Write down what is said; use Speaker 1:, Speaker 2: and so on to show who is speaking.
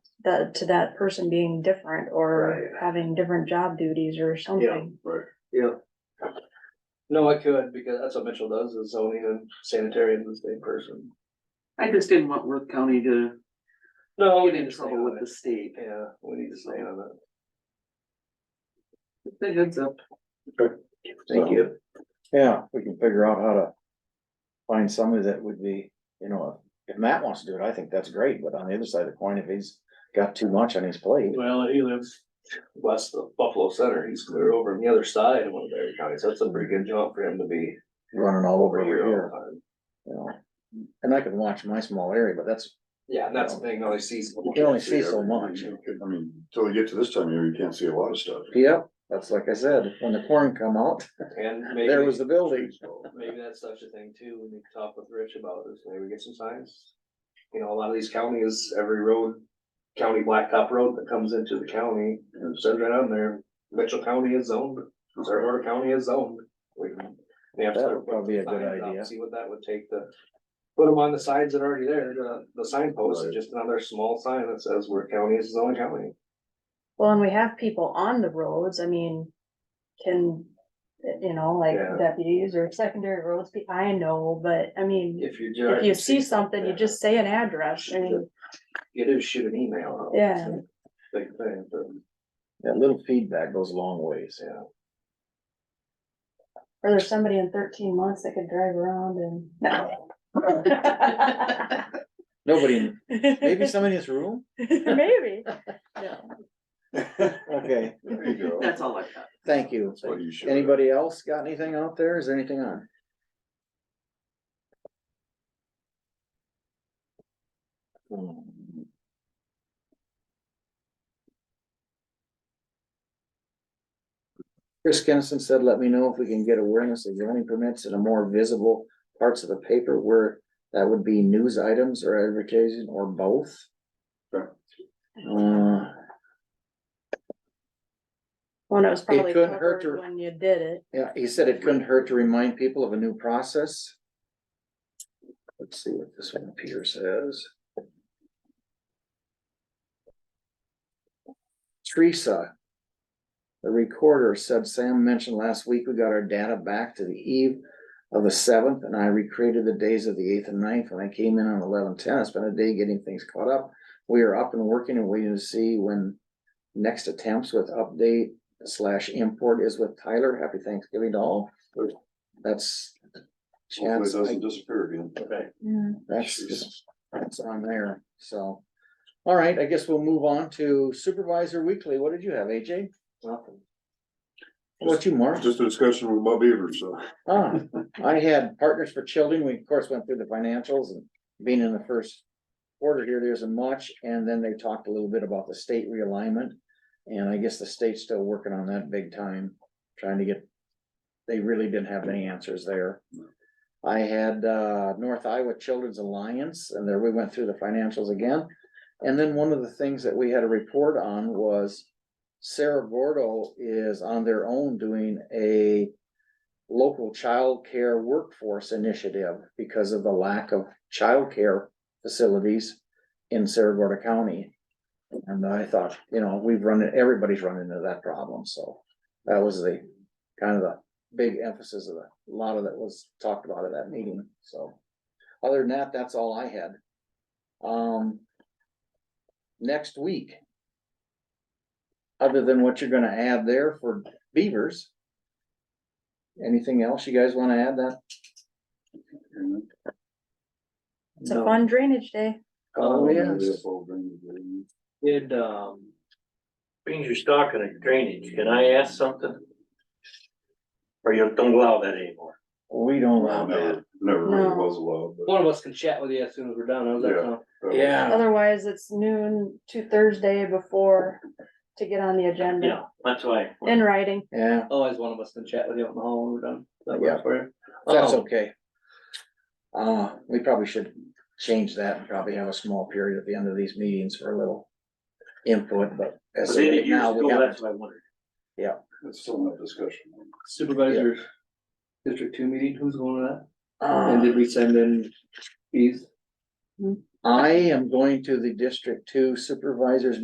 Speaker 1: that, to that person being different or
Speaker 2: Right.
Speaker 1: having different job duties or
Speaker 2: Yeah,
Speaker 1: something.
Speaker 2: right, yeah. No, I could, because that's what Mitchell does, is zoning and sanitary in the same person.
Speaker 3: I just didn't want Worth County to
Speaker 2: No, we
Speaker 3: get
Speaker 2: need
Speaker 3: in
Speaker 2: to stay
Speaker 3: trouble
Speaker 2: on
Speaker 3: with the
Speaker 2: it.
Speaker 3: state.
Speaker 2: Yeah, we need to stay on that.
Speaker 3: It's a heads up.
Speaker 2: Thank you.
Speaker 4: Yeah, we can figure out how to find somebody that would be, you know, if Matt wants to do it, I think that's great, but on the other side of the coin, if he's got too much on his plate.
Speaker 2: Well, he lives west of Buffalo Center, he's clear over on the other side of one of their counties, that's a pretty good jump for him to be.
Speaker 4: Running all over
Speaker 2: over
Speaker 4: here,
Speaker 2: all the
Speaker 4: here,
Speaker 2: time.
Speaker 4: you know, and I can watch my small area, but that's,
Speaker 2: Yeah, and that's the thing, only sees.
Speaker 4: you can only see so much.
Speaker 5: I mean, till you get to this time of year, you can't see a lot of stuff.
Speaker 4: Yep, that's like I said, when the corn come out,
Speaker 2: And maybe.
Speaker 4: there was the building.
Speaker 2: Maybe that's such a thing too, we need to talk with Rich about this, maybe we get some signs. You know, a lot of these counties, every road, county blacktop road that comes into the county, and it says right on there, Mitchell County is zoned, Zerwater County is zoned. We can- we have to
Speaker 4: That
Speaker 2: start
Speaker 4: would probably be a
Speaker 2: putting
Speaker 4: good
Speaker 2: signs up,
Speaker 4: idea.
Speaker 2: See what that would take to, put them on the signs that are already there, the, the signpost,
Speaker 5: Right.
Speaker 2: just another small sign that says where county is zoned county.
Speaker 1: Well, and we have people on the roads, I mean, can, you know, like
Speaker 2: Yeah.
Speaker 1: deputies or secondary roads, be- I know, but I mean,
Speaker 2: If you.
Speaker 1: if you see something, you
Speaker 2: yeah.
Speaker 1: just say an address I mean,
Speaker 2: You do shoot an email. out.
Speaker 1: Yeah.
Speaker 2: Big thing, but,
Speaker 4: That little feedback goes a long ways.
Speaker 2: yeah.
Speaker 1: or there's somebody in thirteen months that could drive around and. No.
Speaker 4: Nobody, in- maybe somebody in this room?
Speaker 1: Maybe. No.
Speaker 4: Okay,
Speaker 5: There you go.
Speaker 3: That's all I got.
Speaker 4: thank you.
Speaker 5: That's what you should-
Speaker 4: Anybody else got anything out there? Is there anything on? Chris Kennison said, let me know if we can get awareness of zoning permits in a more visible parts of the paper where that would be news items or advertising or both.
Speaker 5: Sure.
Speaker 4: Uh,
Speaker 1: Well, and it was probably
Speaker 4: couldn't hurt
Speaker 1: covered
Speaker 4: her.
Speaker 1: when you did it.
Speaker 4: Yeah, he said it couldn't hurt to remind people of a new process. Let's see what this one up here says. Teresa. The recorder said Sam mentioned last week we got our data back to the eve of the seventh and I recreated the days of the eighth and ninth when I came in on eleven ten. It's been a day getting things caught up. We are up and working and waiting to see when next attempts with update slash import is with Tyler. Happy Thanksgiving to all. That's.
Speaker 5: Hopefully it
Speaker 4: Chance, I-
Speaker 5: doesn't disappear again.
Speaker 2: Okay.
Speaker 4: that's, just- that's on there, so. All right, I guess we'll move on to Supervisor Weekly. What did you have, AJ?
Speaker 2: Nothing.
Speaker 4: What you, Mark?
Speaker 5: Just a discussion with Bob Beaver, so.
Speaker 4: Ah, I had Partners for Children. We of course went through the financials and being in the first quarter here, there isn't much. And then they talked a little bit about the state realignment. And I guess the state's still working on that big time, trying to get, they really didn't have any answers there. I had uh North Iowa Children's Alliance and there we went through the financials again. And then one of the things that we had a report on was Sarah Gordo is on their own doing a local child care workforce initiative because of the lack of child care facilities in Saragordo County. And I thought, you know, we've run, everybody's run into that problem, so that was the kind of the big emphasis of the, a lot of that was talked about at that meeting, so. Other than that, that's all I had. Um. Next week. Other than what you're gonna add there for beavers. Anything else you guys wanna add that?
Speaker 1: It's a fun drainage day.
Speaker 2: Uh,
Speaker 4: Oh, yes.
Speaker 5: yes.
Speaker 6: Did, um, being you're talking at drainage, can I ask something? Or you don't allow that anymore?
Speaker 4: We don't allow that.
Speaker 5: Never, never really
Speaker 1: No.
Speaker 5: was allowed, uh, but.
Speaker 2: One of us can chat with you as soon as we're done, how's that
Speaker 5: Yeah.
Speaker 2: sound?
Speaker 5: that was-
Speaker 4: Yeah.
Speaker 1: Otherwise, it's noon to Thursday before to get on the agenda
Speaker 6: Yeah, that's why.
Speaker 1: in writing.
Speaker 4: Yeah,
Speaker 2: Otherwise, one of us can chat with you out in the hall when we're done. That
Speaker 4: Yeah.
Speaker 2: works for you?
Speaker 4: that's
Speaker 2: Um,
Speaker 4: okay. Uh, we probably should change that and probably have a small period at the end of these meetings for a little input, but
Speaker 6: But
Speaker 4: as of
Speaker 6: they did
Speaker 4: right
Speaker 6: years
Speaker 4: now, we
Speaker 6: ago,
Speaker 4: have,
Speaker 6: that's what I wondered.
Speaker 5: It's still in that discussion.
Speaker 2: Supervisors, district two meeting, who's going to that? And
Speaker 4: uh,
Speaker 2: did we send in fees?
Speaker 4: I am going to the District Two Supervisors